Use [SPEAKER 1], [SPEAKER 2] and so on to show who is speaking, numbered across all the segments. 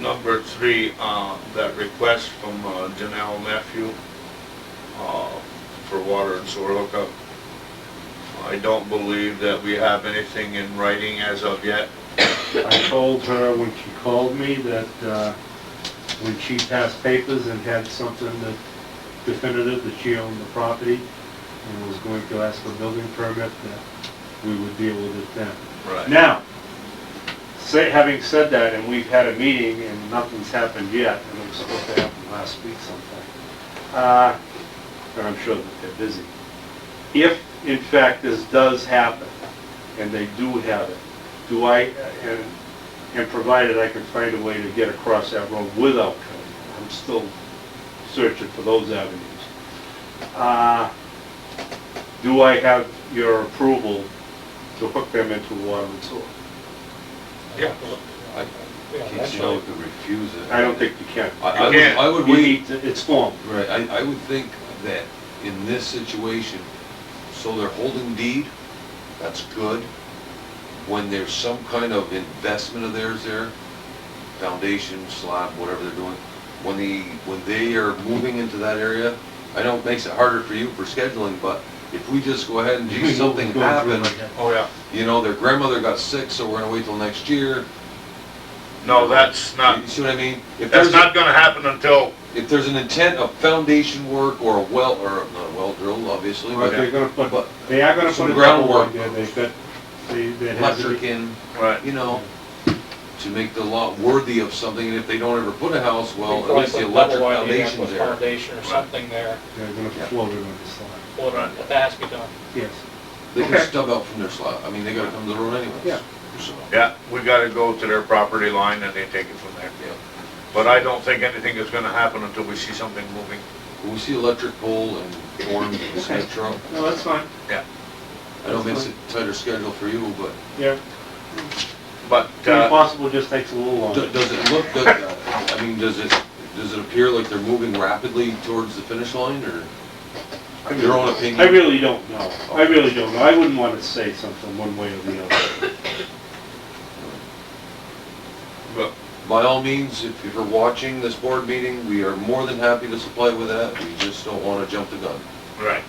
[SPEAKER 1] number three, uh, that request from uh, Janelle Matthew, uh, for water and sewer hookup. I don't believe that we have anything in writing as of yet.
[SPEAKER 2] I told her when she called me that, uh, when she passed papers and had something that definitive that she owned the property and was going to ask for building permit, that we would deal with it then. Now, say, having said that, and we've had a meeting and nothing's happened yet, and it was supposed to happen last week sometime. Uh, and I'm sure that they're busy. If, in fact, this does happen, and they do have it, do I, and, and provided I can find a way to get across that road without cutting, I'm still searching for those avenues. Uh, do I have your approval to hook them into water and sewer?
[SPEAKER 1] Yeah.
[SPEAKER 3] I
[SPEAKER 4] Yeah,
[SPEAKER 3] think
[SPEAKER 4] that's
[SPEAKER 3] you know,
[SPEAKER 4] right.
[SPEAKER 3] could refuse it.
[SPEAKER 2] I don't think you can.
[SPEAKER 3] I- I would-
[SPEAKER 1] You can't.
[SPEAKER 3] I would
[SPEAKER 2] You
[SPEAKER 3] wait,
[SPEAKER 2] need to- It's formed.
[SPEAKER 3] right, I, I would think that in this situation, so they're holding deed, that's good. When there's some kind of investment of theirs there, foundation, slab, whatever they're doing, when the, when they are moving into that area, I know it makes it harder for you for scheduling, but if we just go ahead and, gee, something happened,
[SPEAKER 1] Oh, yeah.
[SPEAKER 3] you know, their grandmother got sick, so we're gonna wait till next year.
[SPEAKER 1] No, that's not,
[SPEAKER 3] You see what I mean? If
[SPEAKER 1] Ah. that's
[SPEAKER 3] there's a-
[SPEAKER 1] not gonna happen until,
[SPEAKER 3] if there's an intent of foundation work or a well, or not a well drill, obviously,
[SPEAKER 2] But
[SPEAKER 3] but
[SPEAKER 2] they're gonna put,
[SPEAKER 3] But-
[SPEAKER 2] they are gonna
[SPEAKER 3] Some
[SPEAKER 2] put a couple
[SPEAKER 3] groundwork.
[SPEAKER 2] in there, they've got, they, that has to
[SPEAKER 3] electric
[SPEAKER 2] be.
[SPEAKER 3] in,
[SPEAKER 1] right,
[SPEAKER 3] you know, to make the lot worthy of something, and if they don't ever put a house, well, at
[SPEAKER 4] Probably
[SPEAKER 3] least the
[SPEAKER 4] put
[SPEAKER 3] electric
[SPEAKER 4] double widening up
[SPEAKER 3] foundation's
[SPEAKER 4] with
[SPEAKER 3] there.
[SPEAKER 4] Foundation or something there,
[SPEAKER 2] They're gonna
[SPEAKER 3] Yeah.
[SPEAKER 2] float it on the slide.
[SPEAKER 4] or
[SPEAKER 1] Right.
[SPEAKER 4] if that has to be done.
[SPEAKER 2] Yes.
[SPEAKER 3] They
[SPEAKER 1] Okay.
[SPEAKER 3] can stub out from their slot, I mean, they gotta come to the road anyways.
[SPEAKER 2] Yeah.
[SPEAKER 3] So,
[SPEAKER 1] yeah, we gotta go to their property line and they take it from there.
[SPEAKER 3] Yeah.
[SPEAKER 1] But I don't think anything is gonna happen until we see something moving.
[SPEAKER 3] When we see electric pole and orange and cement truck,
[SPEAKER 2] No, that's fine.
[SPEAKER 3] I know it makes it tighter schedule for you, but
[SPEAKER 2] Yeah.
[SPEAKER 1] But,
[SPEAKER 2] The
[SPEAKER 1] uh,
[SPEAKER 2] impossible just takes a little
[SPEAKER 3] do-
[SPEAKER 2] longer.
[SPEAKER 3] does it look, does, I mean, does it, does it appear like they're moving rapidly towards the finish line, or your own opinion?
[SPEAKER 2] I really don't know. I really don't know. I wouldn't wanna say something one way or the other.
[SPEAKER 1] but
[SPEAKER 3] By all means, if if you're watching this board meeting, we are more than happy to supply with that, we just don't want to jump the gun.
[SPEAKER 1] Right.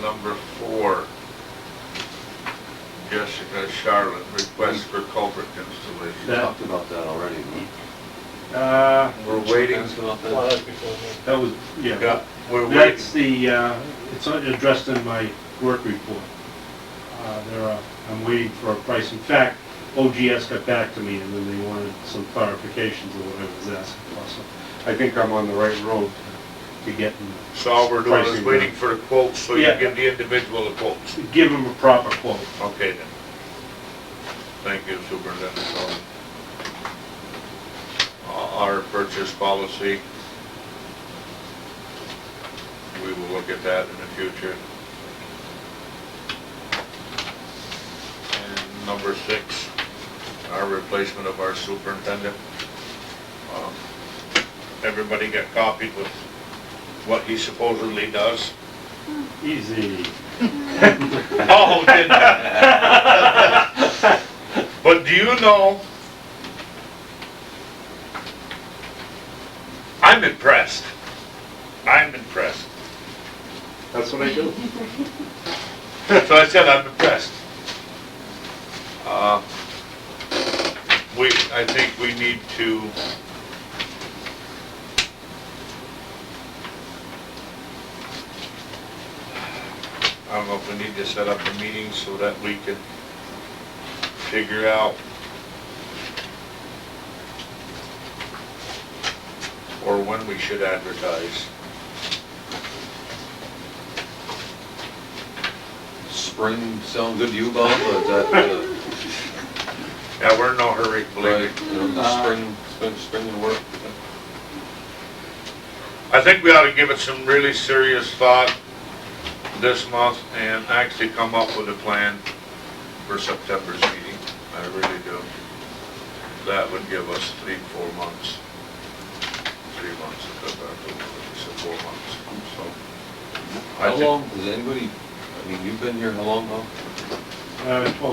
[SPEAKER 1] Number four, Jessica Charlotte, request for culvert
[SPEAKER 3] We
[SPEAKER 1] installation.
[SPEAKER 2] That-
[SPEAKER 3] talked about that already. we-
[SPEAKER 2] Uh,
[SPEAKER 1] We're waiting,
[SPEAKER 3] Ask about
[SPEAKER 4] Well,
[SPEAKER 3] that.
[SPEAKER 4] that's before me.
[SPEAKER 2] that was, yeah.
[SPEAKER 1] yeah, we're waiting.
[SPEAKER 2] That's the, uh, it's addressed in my work report. Uh, There are, I'm waiting for a price. In fact, OGS got back to me and then they wanted some clarifications of what I was asking for. So I think I'm on the right road to getting,
[SPEAKER 1] So all we're doing is
[SPEAKER 2] Pricing,
[SPEAKER 1] waiting for the quotes, so you
[SPEAKER 2] Yeah.
[SPEAKER 1] give the individual the quotes.
[SPEAKER 2] give them a proper quote.
[SPEAKER 1] Okay then. Thank you, Superintendent Sullivan. Uh, Our purchase policy, we will look at that in the future. And number six, our replacement of our superintendent. Um, Everybody got copied with what he supposedly does.
[SPEAKER 2] Easy.
[SPEAKER 1] Oh, did But do you know? I'm impressed. I'm impressed.
[SPEAKER 2] That's what I do.
[SPEAKER 1] So I said I'm impressed. Uh, We, I think we need to I don't know if we need to set up a meeting so that we can figure out or when we should advertise.
[SPEAKER 3] Spring sound good to you, Bob, or is that, uh,
[SPEAKER 1] Yeah, we're in no hurry, believe me.
[SPEAKER 3] right, you know,
[SPEAKER 2] Uh,
[SPEAKER 3] spring, spring, spring and work?
[SPEAKER 1] I think we ought to give it some really serious thought this month and actually come up with a plan for September's meeting. I really do. That would give us three, four months. Three months, if that's our goal, so four months, so. I
[SPEAKER 3] How
[SPEAKER 1] think-
[SPEAKER 3] long, does anybody, I mean, you've been here how long, Bob?
[SPEAKER 2] Uh, twelve